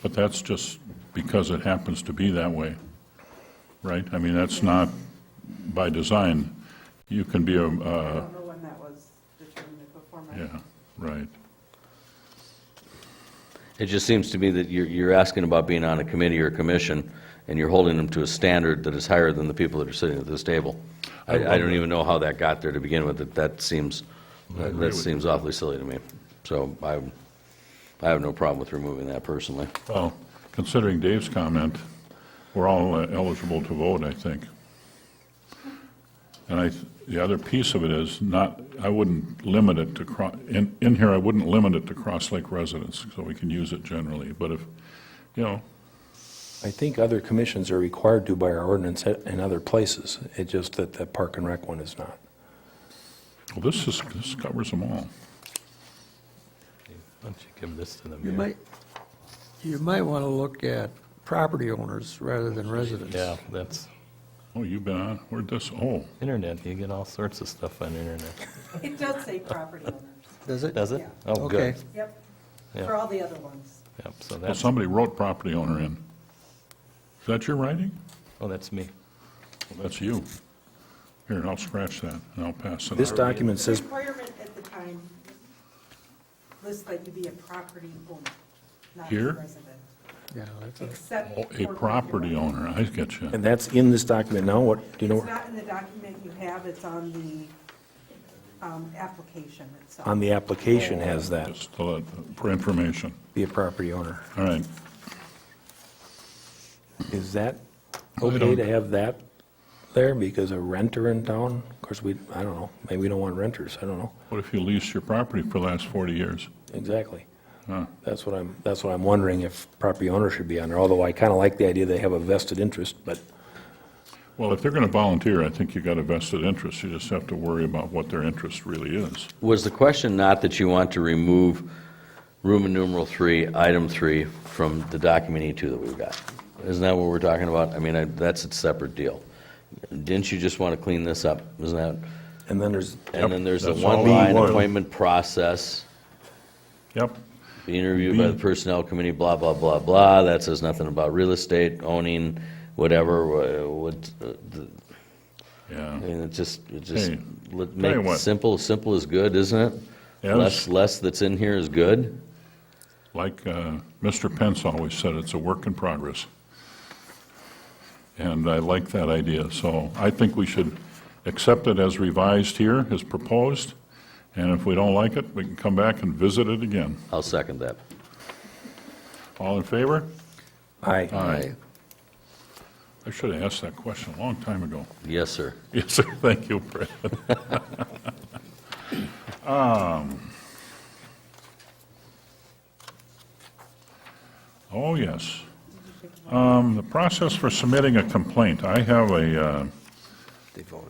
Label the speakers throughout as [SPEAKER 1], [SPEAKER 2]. [SPEAKER 1] But that's just because it happens to be that way, right? I mean, that's not by design. You can be a,
[SPEAKER 2] I
[SPEAKER 1] uh,
[SPEAKER 2] don't know when that was determined before my.
[SPEAKER 1] yeah, right.
[SPEAKER 3] It just seems to me that you're, you're asking about being on a committee or a commission, and you're holding them to a standard that is higher than the people that are sitting at this table. I, I don't even know how that got there to begin with, that, that seems, that that seems awfully silly to me. So I, I have no problem with removing that personally.
[SPEAKER 1] Well, considering Dave's comment, we're all uh, eligible to vote, I think. And I, th- the other piece of it is not, I wouldn't limit it to, cro- in, in here, I wouldn't limit it to Cross Lake residents, so we can use it generally. But if, you know,
[SPEAKER 4] I think other commissions are required to by our ordinance at- in other places. It's just that the Park and Rec one is not.
[SPEAKER 1] well, this is, this covers them all.
[SPEAKER 5] Why don't you give this to the
[SPEAKER 6] You
[SPEAKER 5] mayor?
[SPEAKER 6] might, you might want to look at property owners rather than residents.
[SPEAKER 5] Yeah, that's
[SPEAKER 1] Oh, you've been on, where'd this, oh,
[SPEAKER 5] internet, you get all sorts of stuff on the internet.
[SPEAKER 2] It does say property owners,
[SPEAKER 6] Does it?
[SPEAKER 5] Does it?
[SPEAKER 2] Yeah.
[SPEAKER 5] Oh, good.
[SPEAKER 6] Okay.
[SPEAKER 2] yep,
[SPEAKER 5] Yeah.
[SPEAKER 2] for all the other ones.
[SPEAKER 5] Yep, so
[SPEAKER 1] well,
[SPEAKER 5] that's,
[SPEAKER 1] somebody wrote property owner in. Is that your writing?
[SPEAKER 5] oh, that's me.
[SPEAKER 1] Well, that's you. Here, I'll scratch that, and I'll pass it
[SPEAKER 4] This
[SPEAKER 1] out.
[SPEAKER 4] document
[SPEAKER 2] The
[SPEAKER 4] says,
[SPEAKER 2] requirement at the time lists that you be a property owner, not a
[SPEAKER 1] Here?
[SPEAKER 2] resident.
[SPEAKER 6] Yeah, that's a-
[SPEAKER 2] Except.
[SPEAKER 1] Oh, A
[SPEAKER 2] for-
[SPEAKER 1] property owner, I get you.
[SPEAKER 4] and that's in this document now, what, do you
[SPEAKER 2] It's
[SPEAKER 4] know,
[SPEAKER 2] not in the document you have, it's on the um, application itself.
[SPEAKER 4] on the application has that,
[SPEAKER 1] Just to let- for information.
[SPEAKER 4] be a property owner.
[SPEAKER 1] All right.
[SPEAKER 4] Is that
[SPEAKER 1] I
[SPEAKER 4] okay
[SPEAKER 1] don't-
[SPEAKER 4] to have that there because a renter in town? Of course, we, I don't know, maybe we don't want renters, I don't know,
[SPEAKER 1] What if you leased your property for the last 40 years?
[SPEAKER 4] exactly. That's what I'm, that's what I'm wondering if property owner should be on there, although I kind of like the idea they have a vested interest, but
[SPEAKER 1] Well, if they're going to volunteer, I think you got a vested interest. You just have to worry about what their interest really is.
[SPEAKER 3] Was the question not that you want to remove Roman numeral three, item three, from the document E2 that we've got? Isn't that what we're talking about? I mean, I- that's a separate deal. Didn't you just want to clean this up? Isn't that?
[SPEAKER 4] And then there's,
[SPEAKER 1] Yep,
[SPEAKER 3] And then there's the
[SPEAKER 1] that's all
[SPEAKER 3] one-line
[SPEAKER 1] B1.
[SPEAKER 3] appointment process,
[SPEAKER 1] Yep.
[SPEAKER 3] be interviewed by the
[SPEAKER 1] B.
[SPEAKER 3] personnel committee, blah, blah, blah, blah, that says nothing about real estate, owning, whatever, wha- what, uh, the-
[SPEAKER 1] Yeah.
[SPEAKER 3] I mean, it just, it just,
[SPEAKER 1] Hey,
[SPEAKER 3] let-
[SPEAKER 1] you
[SPEAKER 3] make
[SPEAKER 1] what.
[SPEAKER 3] it simple, simple is good, isn't it?
[SPEAKER 1] Yeah,
[SPEAKER 3] Less,
[SPEAKER 1] it's-
[SPEAKER 3] less that's in here is good?
[SPEAKER 1] Like uh, Mr. Pence always said, it's a work in progress. And I like that idea, so I think we should accept it as revised here, as proposed, and if we don't like it, we can come back and visit it again.
[SPEAKER 3] I'll second that.
[SPEAKER 1] All in favor?
[SPEAKER 4] aye,
[SPEAKER 3] Aye.
[SPEAKER 1] I should have asked that question a long time ago.
[SPEAKER 3] Yes, sir.
[SPEAKER 1] Yes, sir, thank you, Brad. Um, Oh, yes. Um, The process for submitting a complaint, I have a uh,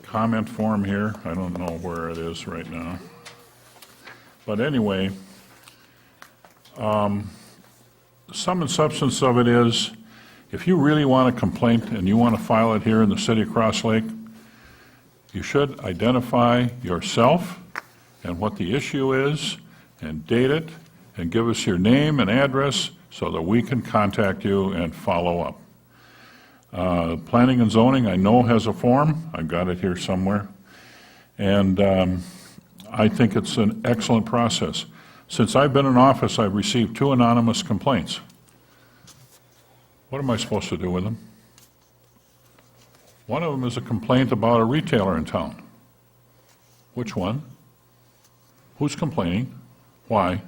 [SPEAKER 1] comment form here, I don't know where it is right now. But anyway, um, sum and substance of it is, if you really want a complaint and you want to file it here in the city of Cross Lake, you should identify yourself and what the issue is, and date it, and give us your name and address so that we can contact you and follow up. Uh, Planning and zoning, I know has a form, I've got it here somewhere, and um, I think it's an excellent process. Since I've been in office, I've received two anonymous complaints. What am I supposed to do with them? One of them is a complaint about a retailer in town. Which one? Who's complaining? Why?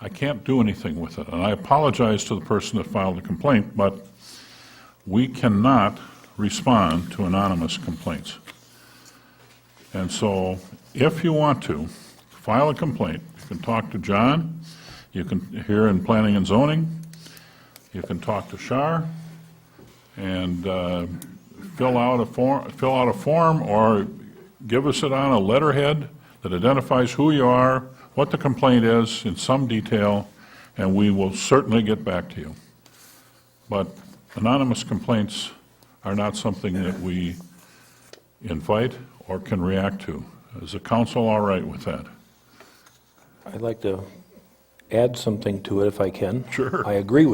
[SPEAKER 1] I can't do anything with it, and I apologize to the person that filed the complaint, but we cannot respond to anonymous complaints. And so, if you want to, file a complaint. You can talk to John, you can, here in Planning and Zoning, you can talk to Shar, and uh, fill out a form, fill out a form, or give us it on a letterhead that identifies who you are, what the complaint is, in some detail, and we will certainly get back to you. But anonymous complaints are not something that we invite or can react to. Is the council all right with that?
[SPEAKER 4] I'd like to add something to it if I can.
[SPEAKER 1] Sure.
[SPEAKER 4] I agree with